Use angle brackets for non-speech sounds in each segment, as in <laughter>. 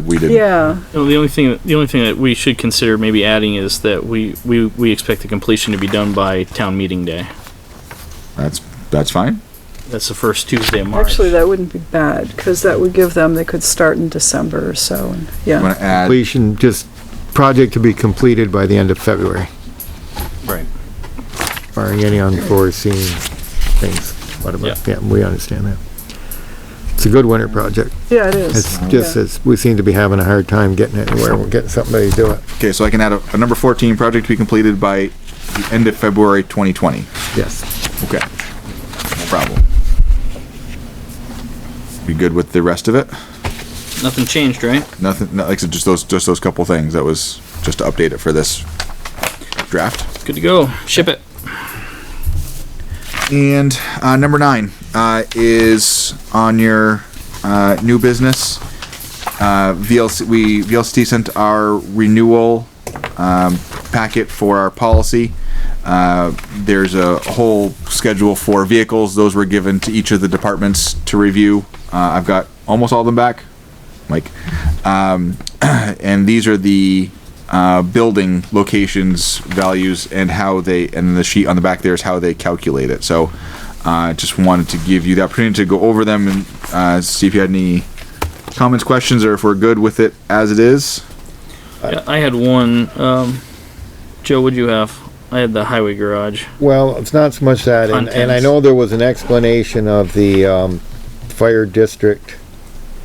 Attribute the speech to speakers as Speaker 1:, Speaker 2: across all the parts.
Speaker 1: we didn't.
Speaker 2: Yeah,
Speaker 3: No, the only thing, the only thing that we should consider maybe adding is that we, we, we expect the completion to be done by town meeting day.
Speaker 1: That's, that's fine.
Speaker 3: That's the first Tuesday of March.
Speaker 2: actually, that wouldn't be bad, because that would give them, they could start in December or so, and,
Speaker 1: I'm
Speaker 2: yeah.
Speaker 1: gonna add,
Speaker 4: Completion, just project to be completed by the end of February,
Speaker 3: Right.
Speaker 4: barring any unforeseen things. What about, yeah, we understand that. It's a good winter project.
Speaker 2: Yeah, it is.
Speaker 4: It's just,
Speaker 2: Yeah.
Speaker 4: it's, we seem to be having a hard time getting it anywhere. We're getting somebody to do it.
Speaker 1: okay, so I can add a, a number fourteen, project to be completed by the end of February twenty twenty.
Speaker 4: Yes.
Speaker 1: Okay. No problem. Be good with the rest of it?
Speaker 3: Nothing changed, right?
Speaker 1: Nothing, no, like, I said, just those, just those couple things. That was just to update it for this draft.
Speaker 3: Good to go. Ship it.
Speaker 1: And uh, number nine uh, is on your uh, new business. Uh, VLC, we VLCT sent our renewal um, packet for our policy. Uh, there's a whole schedule for vehicles. Those were given to each of the departments to review. Uh, I've got almost all of them back, Mike. Um, and these are the uh, building locations values and how they and the sheet on the back there is how they calculate it. So I uh, just wanted to give you the opportunity to go over them and uh, see if you had any comments, questions, or if we're good with it as it is.
Speaker 3: Yeah, I had one, um, Joe, what'd you have? I had the highway garage.
Speaker 4: Well, it's not so much that, and, and I
Speaker 3: Contents.
Speaker 4: know there was an explanation of the, um, fire district.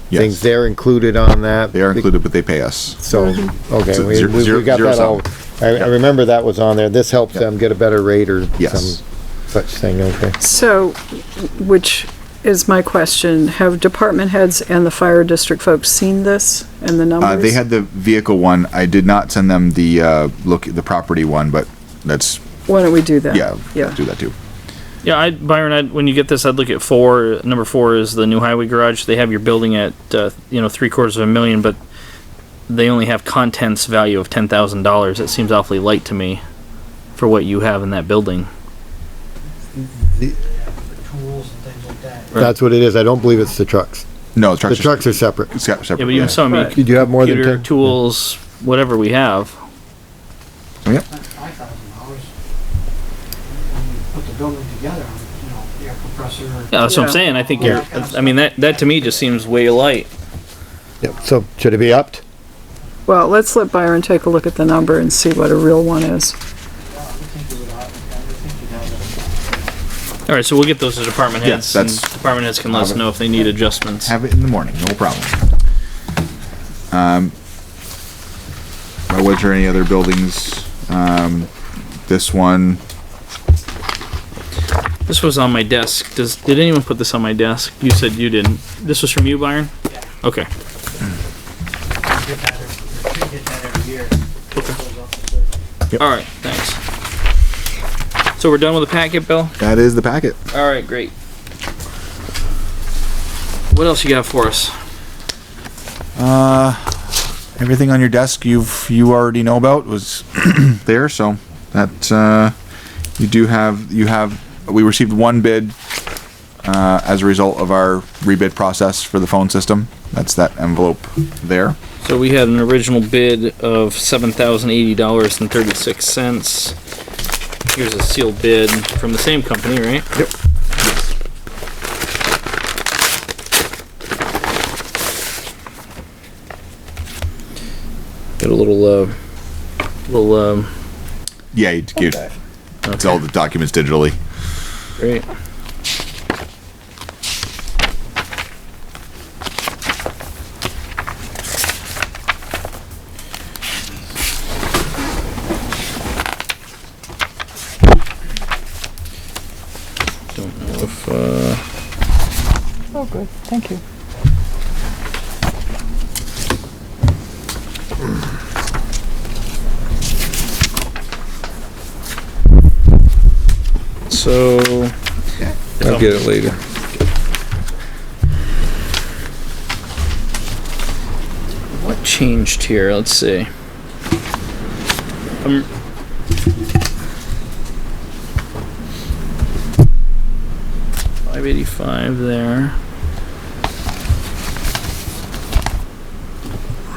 Speaker 4: Things
Speaker 1: Yes,
Speaker 4: they're included on that.
Speaker 1: they are included, but they pay us.
Speaker 4: So, okay,
Speaker 1: So
Speaker 4: we,
Speaker 1: zero-
Speaker 4: we-
Speaker 1: zero-
Speaker 4: we got
Speaker 1: zero
Speaker 4: that all, I, I remember that was on there, this helps them get a better rate or
Speaker 1: Yes.
Speaker 4: some such thing, okay.
Speaker 2: So, which is my question, have department heads and the fire district folks seen this and the numbers?
Speaker 1: Uh, they had the vehicle one. I did not send them the uh, look the property one, but that's
Speaker 2: Why don't we do that?
Speaker 1: yeah,
Speaker 2: Yeah,
Speaker 1: do that too.
Speaker 3: Yeah, I, Byron, I'd, when you get this, I'd look at four. Number four is the new highway garage. They have your building at, uh, you know, three quarters of a million, but they only have contents value of ten thousand dollars. That seems awfully light to me for what you have in that building.
Speaker 5: for tools and things like that.
Speaker 4: That's what it is, I don't believe it's the trucks.
Speaker 1: No, the
Speaker 4: The
Speaker 1: trucks. are-
Speaker 4: trucks are separate.
Speaker 1: it's got separate.
Speaker 3: Yeah, but even some, I mean,
Speaker 2: Right.
Speaker 4: Did you have more than
Speaker 3: computer,
Speaker 4: ten?
Speaker 3: tools, whatever we have.
Speaker 5: That's five thousand dollars. When you put the building together, you know, air compressor.
Speaker 3: Yeah, that's what
Speaker 2: Yeah.
Speaker 3: I'm saying. I think you're, I mean, that, that to me just seems way light.
Speaker 4: Yep, so should it be upped?
Speaker 2: well, let's let Byron take a look at the number and see what a real one is.
Speaker 5: I would think you would, I would think you'd have a
Speaker 3: All right, so we'll get those to department
Speaker 1: Yeah,
Speaker 3: heads. and
Speaker 1: that's-
Speaker 3: Department heads can let us know if they need adjustments.
Speaker 1: Have it in the morning, no problem. Um, was there any other buildings? Um, this one,
Speaker 3: This was on my desk. Does did anyone put this on my desk? You said you didn't. This was from you, Byron. Okay.
Speaker 5: get that, every- you get that every year. Goes up to thirty.
Speaker 3: All right. Thanks. So we're done with the packet, Bill.
Speaker 1: that is the packet.
Speaker 3: All right. Great. What else you got for us?
Speaker 1: Everything on your desk you've, you already know about was <clears throat> there, so that, uh, you do have, you have, we received one bid, uh, as a result of our rebid process for the phone system. That's that envelope there.
Speaker 3: So we had an original bid of seven thousand eighty dollars and thirty six cents. Here's a sealed bid from the same company, right?
Speaker 1: Yep.
Speaker 3: Got a little, uh, little, um,
Speaker 1: Yeah, you did. It's all the documents digitally.
Speaker 3: great. Don't know if, uh.
Speaker 2: Oh, good, thank you.
Speaker 3: So.
Speaker 6: I'll get it later.
Speaker 3: What changed here? Let's see. Um, Five eighty-five there.